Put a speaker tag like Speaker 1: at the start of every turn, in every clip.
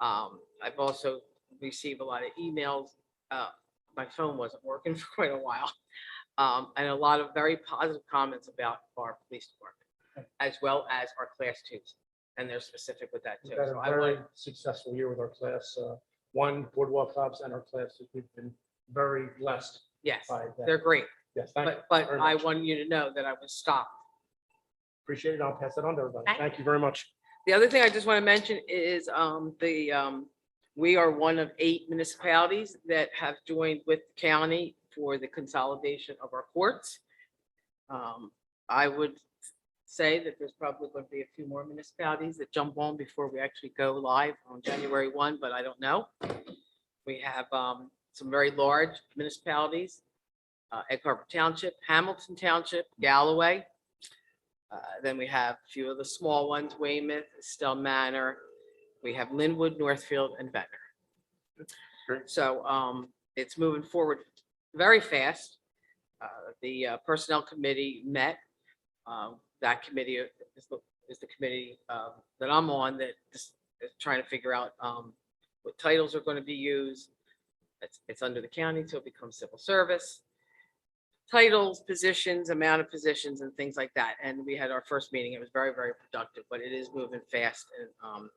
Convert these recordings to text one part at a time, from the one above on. Speaker 1: Um, I've also received a lot of emails. Uh, my phone wasn't working for quite a while. Um, and a lot of very positive comments about our police department, as well as our class twos. And they're specific with that too.
Speaker 2: We've had
Speaker 1: So
Speaker 2: a
Speaker 1: I want,
Speaker 2: very successful year with our class, uh, one boardwalk cops and our classes. We've been very blessed
Speaker 1: yes,
Speaker 2: by that.
Speaker 1: they're great.
Speaker 2: Yes, thank you.
Speaker 1: But, but
Speaker 2: very
Speaker 1: I
Speaker 2: much.
Speaker 1: want you to know that I was stopped
Speaker 2: Appreciate it. I'll pass that on to everybody.
Speaker 1: Thank
Speaker 2: Thank you very much.
Speaker 1: The other thing I just want to mention is um, the, um, we are one of eight municipalities that have joined with the county for the consolidation of our courts. Um, I would say that there's probably going to be a few more municipalities that jump on before we actually go live on January 1, but I don't know. We have um, some very large municipalities, uh, Egg Harbor Township, Hamilton Township, Galloway, uh, Then we have a few of the small ones, Weymouth, Estelle Manor. We have Linwood, Northfield, and Ventnor.
Speaker 2: Great.
Speaker 1: So um, it's moving forward very fast. Uh, The uh, Personnel Committee met. Um, That committee is the, is the committee um, that I'm on that is is trying to figure out um, what titles are going to be used. It's, it's under the county till it becomes civil service titles, positions, amount of positions and things like that. And we had our first meeting. It was very, very productive, but it is moving fast and, um,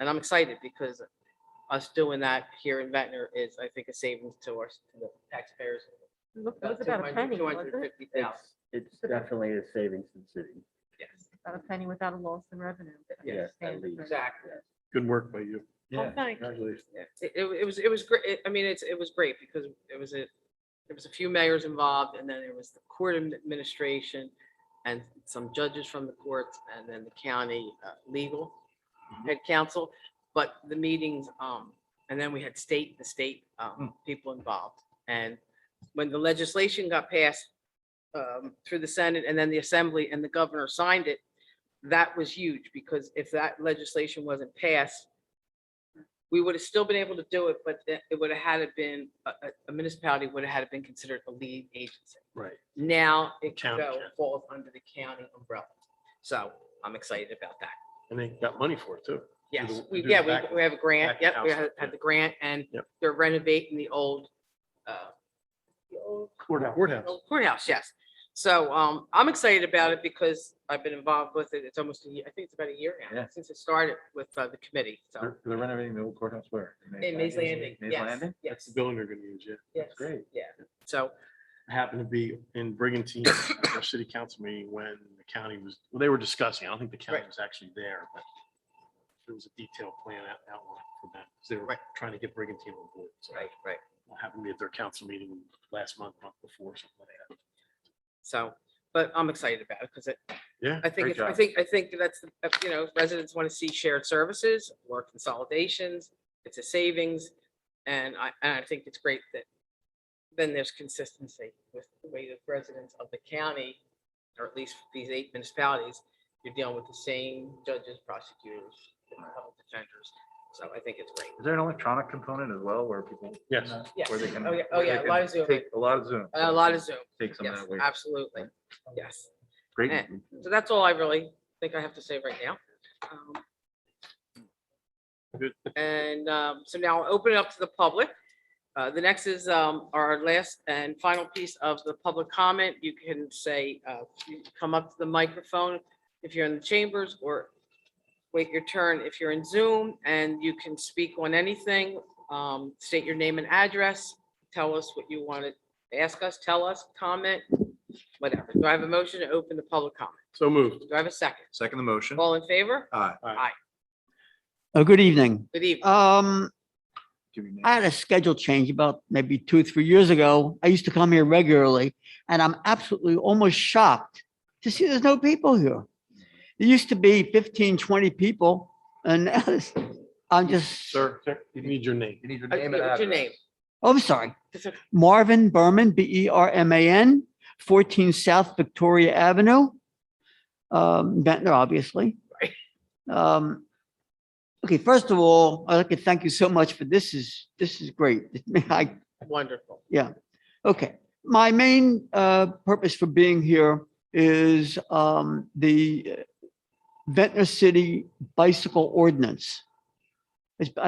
Speaker 1: and I'm excited because us doing that here in Ventnor is, I think, a savings to our to the taxpayers.
Speaker 3: It was about a penny, wasn't it?
Speaker 4: It's, it's definitely a savings to the city.
Speaker 1: Yes,
Speaker 3: About a penny without a loss in revenue. but I
Speaker 1: Yes,
Speaker 3: understand
Speaker 4: at
Speaker 3: the
Speaker 4: least.
Speaker 3: difference.
Speaker 1: exactly.
Speaker 5: Good work by you.
Speaker 3: Oh, thank you.
Speaker 5: Congratulations.
Speaker 1: Yeah, It, it- it was, it was great. I mean, it's, it was great because it was a, there was a few mayors involved and then it was the court admi- administration and some judges from the courts and then the county uh, legal head counsel. But the meetings, um, and then we had state, the state, um, people involved. And when the legislation got passed, um, through the Senate and then the Assembly and the governor signed it, that was huge because if that legislation wasn't passed, we would have still been able to do it, but th- it would have had it been, a- a a municipality would have had it been considered a lead agency.
Speaker 5: Right.
Speaker 1: Now it
Speaker 5: County,
Speaker 1: go-
Speaker 5: yeah.
Speaker 1: falls under the county umbrella. So I'm excited about that.
Speaker 5: And they got money for it too. Do the-
Speaker 1: Yes, we,
Speaker 5: do the
Speaker 1: yeah, we,
Speaker 5: back-
Speaker 1: we have a grant.
Speaker 5: back
Speaker 1: Yep, we
Speaker 5: house,
Speaker 1: had had
Speaker 5: yeah.
Speaker 1: the grant and
Speaker 5: Yep.
Speaker 1: they're renovating the old, uh, the old
Speaker 5: Courthouse.
Speaker 1: old courthouse, yes. So, um, I'm excited about it because I've been involved with it. It's almost a year, I think it's about a year now
Speaker 6: Yeah.
Speaker 1: since it started with uh, the committee. So
Speaker 6: They're they're renovating the old courthouse where?
Speaker 1: in Mays Landing,
Speaker 6: Mays
Speaker 1: yes,
Speaker 6: Landing?
Speaker 1: yes,
Speaker 5: That's the building they're gonna use, yeah.
Speaker 1: yes.
Speaker 6: great.
Speaker 1: Yeah. So
Speaker 5: I happened to be in Brigantine, at our city council meeting when the county was, well, they were discussing. I don't think the county
Speaker 1: Right.
Speaker 5: was actually there, but there was a detailed plan out- outlined for that. 'cause They were
Speaker 1: Right.
Speaker 5: trying to get Brigantine on board. So I
Speaker 1: Right, right.
Speaker 5: happened to be at their council meeting last month, month before, something like that.
Speaker 1: So, but I'm excited about it because it,
Speaker 5: Yeah.
Speaker 1: I think,
Speaker 6: Great
Speaker 1: it's- I
Speaker 6: job.
Speaker 1: think, I think that's, the- uh, you know, residents want to see shared services or consolidations. It's a savings. And I, and I think it's great that then there's consistency with the way the residents of the county, or at least these eight municipalities, you're dealing with the same judges, prosecutors, and public defenders. So I think it's great.
Speaker 6: Is there an electronic component as well where people? can,
Speaker 5: Yes.
Speaker 6: uh,
Speaker 1: Yes.
Speaker 6: Where they can.
Speaker 1: Oh, yeah. Oh,
Speaker 6: where they
Speaker 1: yeah, a lot of
Speaker 6: can
Speaker 1: Zoom.
Speaker 6: take- A lot of Zoom.
Speaker 1: A lot of Zoom.
Speaker 6: Take some of
Speaker 1: Yes,
Speaker 6: that away.
Speaker 1: absolutely. Yes.
Speaker 6: Great.
Speaker 1: eh. So that's all I really think I have to say right now. Um,
Speaker 5: Good.
Speaker 1: And um, so now I'll open it up to the public. Uh, The next is um, our last and final piece of the public comment. You can say, uh, you can come up to the microphone if you're in the chambers or wait your turn if you're in Zoom and you can speak on anything. Um, State your name and address. Tell us what you want to ask us, tell us, comment, whatever. Do I have a motion to open the public comment?
Speaker 5: So moved.
Speaker 1: Do I have a second?
Speaker 6: Second the motion.
Speaker 1: All in favor?
Speaker 6: Aye.
Speaker 7: Oh, good evening.
Speaker 1: Good evening.
Speaker 7: Um,
Speaker 6: Give your name.
Speaker 7: I had a schedule change about maybe two, three years ago. I used to come here regularly and I'm absolutely almost shocked to see there's no people here. There used to be 15, 20 people and now it's- I'm just,
Speaker 6: Sir,
Speaker 5: You need your name.
Speaker 6: you need your
Speaker 1: Uh,
Speaker 6: name and
Speaker 1: What's
Speaker 6: address.
Speaker 1: your name?
Speaker 7: oh, I'm sorry.
Speaker 1: It's okay.
Speaker 7: Marvin Berman, B E R M A N, 14 South Victoria Avenue. Um, Ventnor, obviously. Um, okay, first of all, I'd like to thank you so much for this is, this is great. I
Speaker 1: Wonderful.
Speaker 7: Okay, my main uh, purpose for being here is um, the Ventnor City Bicycle Ordinance. It's- I